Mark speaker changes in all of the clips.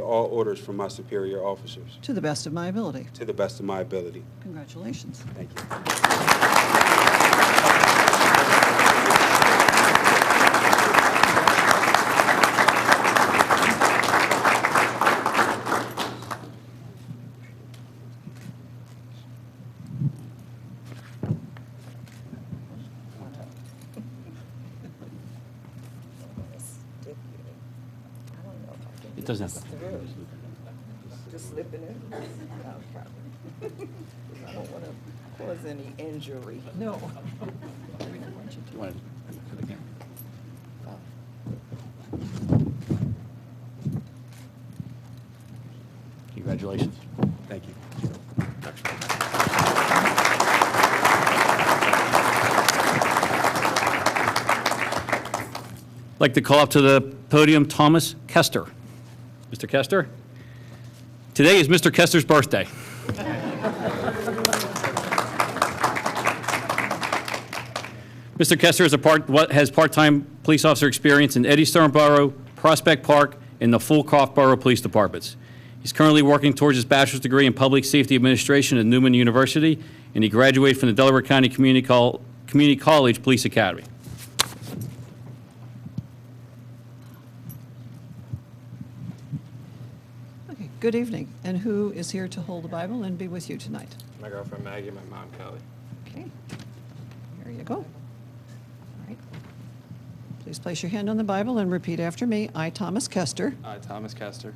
Speaker 1: all orders from my superior officers
Speaker 2: to the best of my ability.
Speaker 1: to the best of my ability.
Speaker 2: Congratulations.
Speaker 1: Thank you.
Speaker 3: It doesn't have to.
Speaker 4: Just slipping in. No problem. I don't want to cause any injury.
Speaker 2: No. We don't want you to.
Speaker 3: Wanna- to the camera. Congratulations.
Speaker 1: Thank you.
Speaker 3: I'd like to call up to the podium Thomas Kester. Mr. Kester? Today is Mr. Kester's birthday. Mr. Kester is a part, what- has part-time police officer experience in Eddystone Borough, Prospect Park, and the Fulcoff Borough Police Departments. He's currently working towards his bachelor's degree in public safety administration at Newman University, and he graduated from the Delaware County Community Col- Community College Police Academy.
Speaker 2: Okay, good evening. And who is here to hold the Bible and be with you tonight?
Speaker 5: My girlfriend Maggie, and my mom Kelly.
Speaker 2: Okay, there you go. All right. Please place your hand on the Bible and repeat after me. I, Thomas Kester,
Speaker 5: I, Thomas Kester,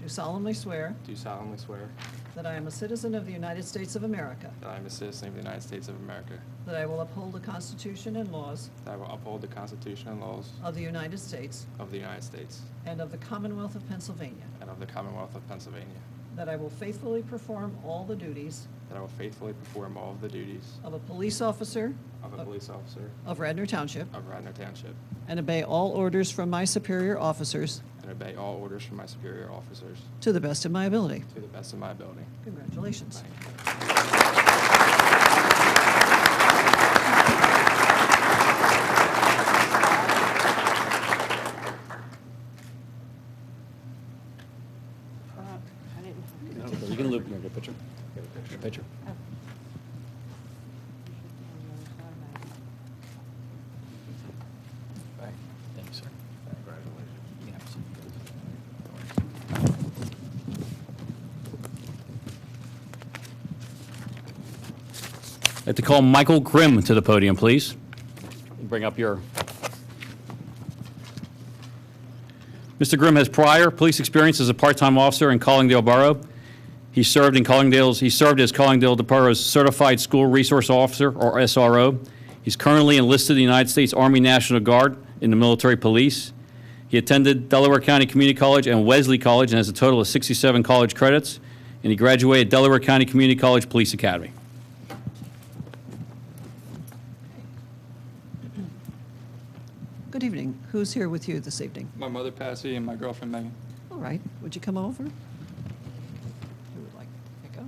Speaker 2: do solemnly swear
Speaker 5: do solemnly swear
Speaker 2: that I am a citizen of the United States of America,
Speaker 5: that I am a citizen of the United States of America,
Speaker 2: that I will uphold the Constitution and laws
Speaker 5: that I will uphold the Constitution and laws
Speaker 2: of the United States
Speaker 5: of the United States
Speaker 2: and of the Commonwealth of Pennsylvania,
Speaker 5: and of the Commonwealth of Pennsylvania,
Speaker 2: that I will faithfully perform all the duties
Speaker 5: that I will faithfully perform all of the duties
Speaker 2: of a police officer
Speaker 5: of a police officer
Speaker 2: of Radnor Township
Speaker 5: of Radnor Township
Speaker 2: and obey all orders from my superior officers
Speaker 5: and obey all orders from my superior officers
Speaker 2: to the best of my ability.
Speaker 5: to the best of my ability.
Speaker 2: Congratulations.
Speaker 5: Thank you.
Speaker 3: You can loop, you get a picture. Get a picture. Thank you, sir. I'd like to call Michael Grimm to the podium, please. Bring up your Mr. Grimm has prior police experience as a part-time officer in Collingdale Borough. He served in Collingdale's, he served as Collingdale Borough's Certified School Resource Officer, or SRO. He's currently enlisted in the United States Army National Guard in the military police. He attended Delaware County Community College and Wesley College and has a total of 67 college credits, and he graduated Delaware County Community College Police Academy.
Speaker 2: Good evening. Who's here with you this evening?
Speaker 5: My mother Patsy and my girlfriend Megan.
Speaker 2: All right, would you come over? Who would like to pick up?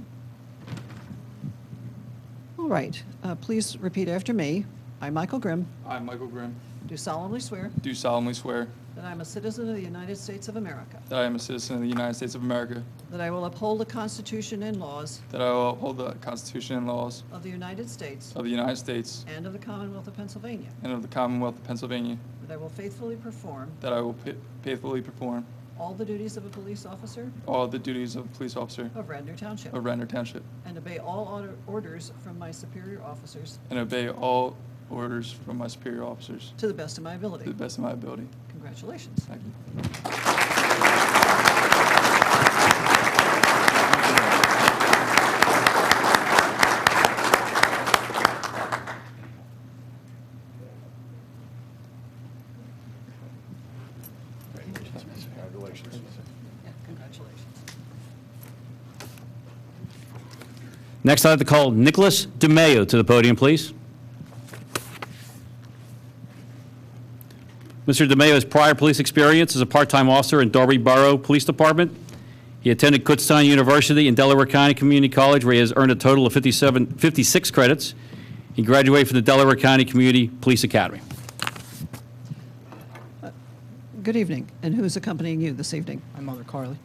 Speaker 2: All right, uh, please repeat after me. I, Michael Grimm,
Speaker 5: I, Michael Grimm,
Speaker 2: do solemnly swear
Speaker 5: do solemnly swear
Speaker 2: that I am a citizen of the United States of America,
Speaker 5: that I am a citizen of the United States of America,
Speaker 2: that I will uphold the Constitution and laws
Speaker 5: that I will uphold the Constitution and laws
Speaker 2: of the United States
Speaker 5: of the United States
Speaker 2: and of the Commonwealth of Pennsylvania,
Speaker 5: and of the Commonwealth of Pennsylvania,
Speaker 2: that I will faithfully perform
Speaker 5: that I will pa- faithfully perform
Speaker 2: all the duties of a police officer
Speaker 5: all the duties of police officer
Speaker 2: of Radnor Township,
Speaker 5: of Radnor Township,
Speaker 2: and obey all order- orders from my superior officers
Speaker 5: and obey all orders from my superior officers
Speaker 2: to the best of my
Speaker 5: to the
Speaker 2: ability.
Speaker 5: best of my ability.
Speaker 2: Congratulations.
Speaker 5: Thank you.
Speaker 2: Yeah, Congratulations.
Speaker 3: Next, I'd like to call Nicholas DeMayo to the podium, please. Mr. DeMayo has prior police experience as a part-time officer in Darby Borough Police Department. He attended Kutztown University in Delaware County Community College, where he has earned a total of 57, 56 credits. He graduated from the Delaware County Community Police Academy.
Speaker 2: Good evening, and who's accompanying you this evening?
Speaker 6: My mother, Carly.